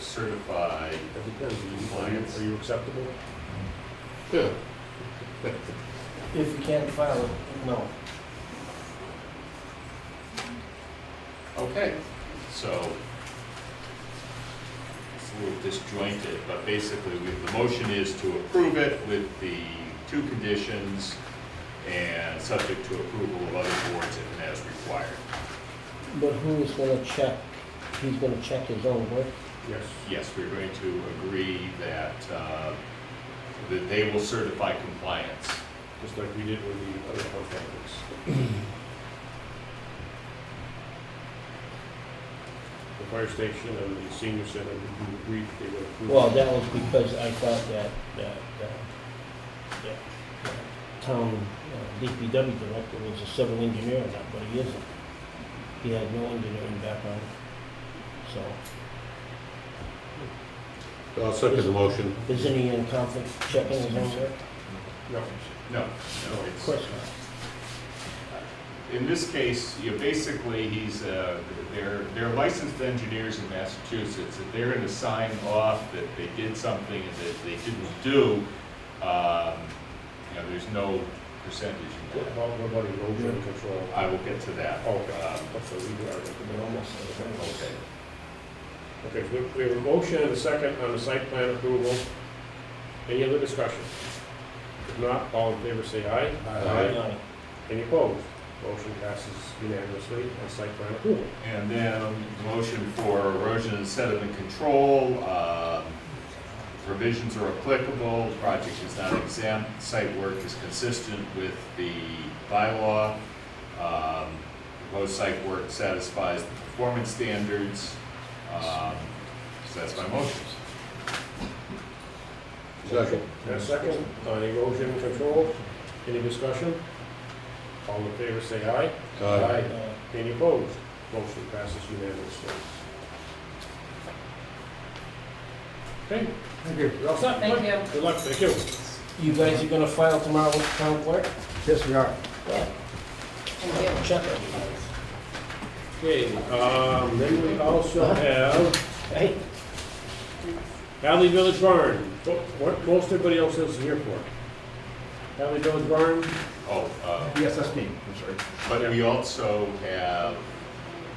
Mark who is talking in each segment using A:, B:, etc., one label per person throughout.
A: certify
B: It depends, Are you- are you,
A: Compliance.
B: are you acceptable?
C: Yeah.
D: If you can't file it, no.
A: Okay, so it's a little disjointed, but basically, we, the motion is to approve it with the two conditions and subject to approval of other boards if and as required.
D: But who's gonna check, he's gonna check his own work?
B: Yes.
A: Yes, we're going to agree that, uh, that they will certify compliance.
B: Just like we did with the other contractors. The fire station and the senior center, we agreed they would approve.
D: Well, that was because I thought that, that, uh, that uh, town uh, DPW director was a civil engineer or not, but he isn't. He had no engineering background, so
C: I'll second the motion.
D: isn't he in conflict checking his own work?
B: No,
A: No, no,
D: Oh, Of
A: it's.
D: course not.
A: In this case, you know, basically, he's, uh, they're, they're licensed engineers in Massachusetts. If they're gonna sign off that they did something and that they didn't do, um, you know, there's no percentage in
B: what
A: that.
B: about, what about erosion control? Oh,
A: I will get to that.
B: Okay,
A: Um,
B: so we are,
D: But almost, uh,
A: Okay.
B: okay, we- we have a motion and a second on the site plan approval. Any other discussion? If not, all in favor say aye.
C: Aye.
D: aye.
B: Any opposed? Motion passes unanimously on site plan approval.
A: And then motion for erosion and sediment control, um, provisions are applicable, project is not exempt, site work is consistent with the bylaw. Um, Proposed site work satisfies the performance standards. Um, So that's my motion.
C: Second.
B: And a second on erosion control. Any discussion? All in favor say aye.
C: Aye.
D: Aye.
B: Any opposed? Motion passes unanimously. Okay. Thank you. You're all set.
E: Thank
B: Good luck.
E: you.
B: Good luck, thank you.
D: You guys are gonna file tomorrow with the town clerk?
F: Yes, we are.
D: Yeah.
E: Thank you.
D: Check it.
B: Okay, um, then we also have
D: Hey,
B: Hadley Village Barn. What- What most everybody else is here for? Hadley Village Barn,
A: Oh, uh,
F: Yes, that's me, I'm sorry.
A: but we also have,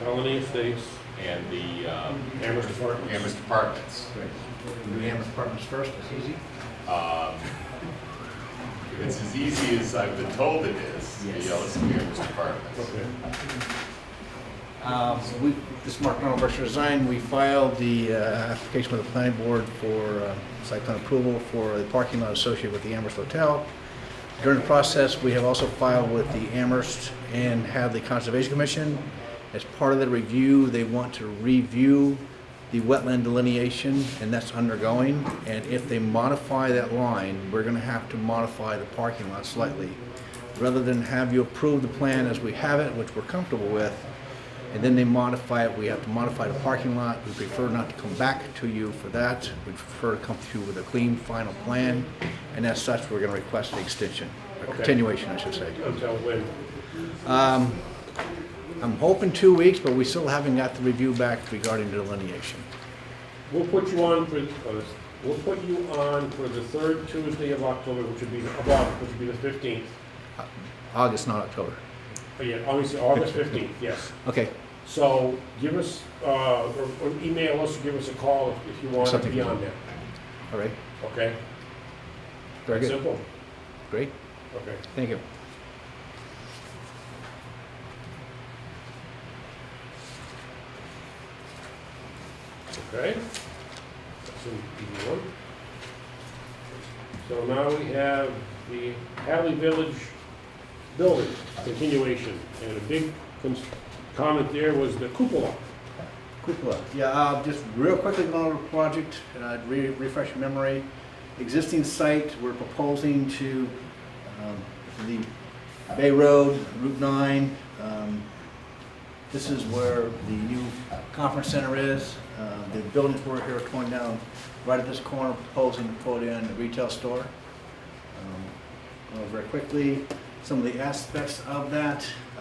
B: Colony Estates,
A: and the um,
B: Amherst Apartments.
A: Amherst Apartments.
F: Great. Do the Amherst Apartments first, it's easy.
A: Um, If it's as easy as I've been told it is,
F: Yes.
A: the Ellis and Amherst Apartments.
B: Okay.
F: Um, We, this is Mark Arnold, Berkshire Design, we filed the uh, application with the planning board for uh, site plan approval for the parking lot associated with the Amherst Hotel. During the process, we have also filed with the Amherst and Hadley Conservation Commission. As part of the review, they want to review the wetland delineation, and that's undergoing. And if they modify that line, we're gonna have to modify the parking lot slightly. Rather than have you approve the plan as we have it, which we're comfortable with, and then they modify it, we have to modify the parking lot, we prefer not to come back to you for that, we prefer to come to you with a clean final plan, and as such, we're gonna request an extension, a
B: Okay.
F: continuation, I should say.
B: Until when?
F: I'm hoping two weeks, but we still haven't got the review back regarding delineation.
B: We'll put you on for, uh, we'll put you on for the third Tuesday of October, which would be, of August, which would be the fifteenth.
F: August, not October.
B: Oh, yeah, obviously, August fifteenth, yes.
F: Okay,
B: So give us, uh, or or email us, give us a call if- if you want to
F: Something.
B: be on there,
F: all right,
B: okay?
F: very good,
B: Simple,
F: great,
B: okay.
F: thank you.
B: Okay. That's in E one. So now we have the Hadley Village building continuation, and a big cons- comment there was the cupola.
F: Quick look, yeah, uh, just real quickly going over the project, and I'd re- refresh your memory. Existing site, we're proposing to, um, the Bay Road, Route nine, um, this is where the new conference center is. Uh, the buildings we're here are torn down, right at this corner, proposing to put in a retail store. Um, Going over very quickly, some of the aspects of that,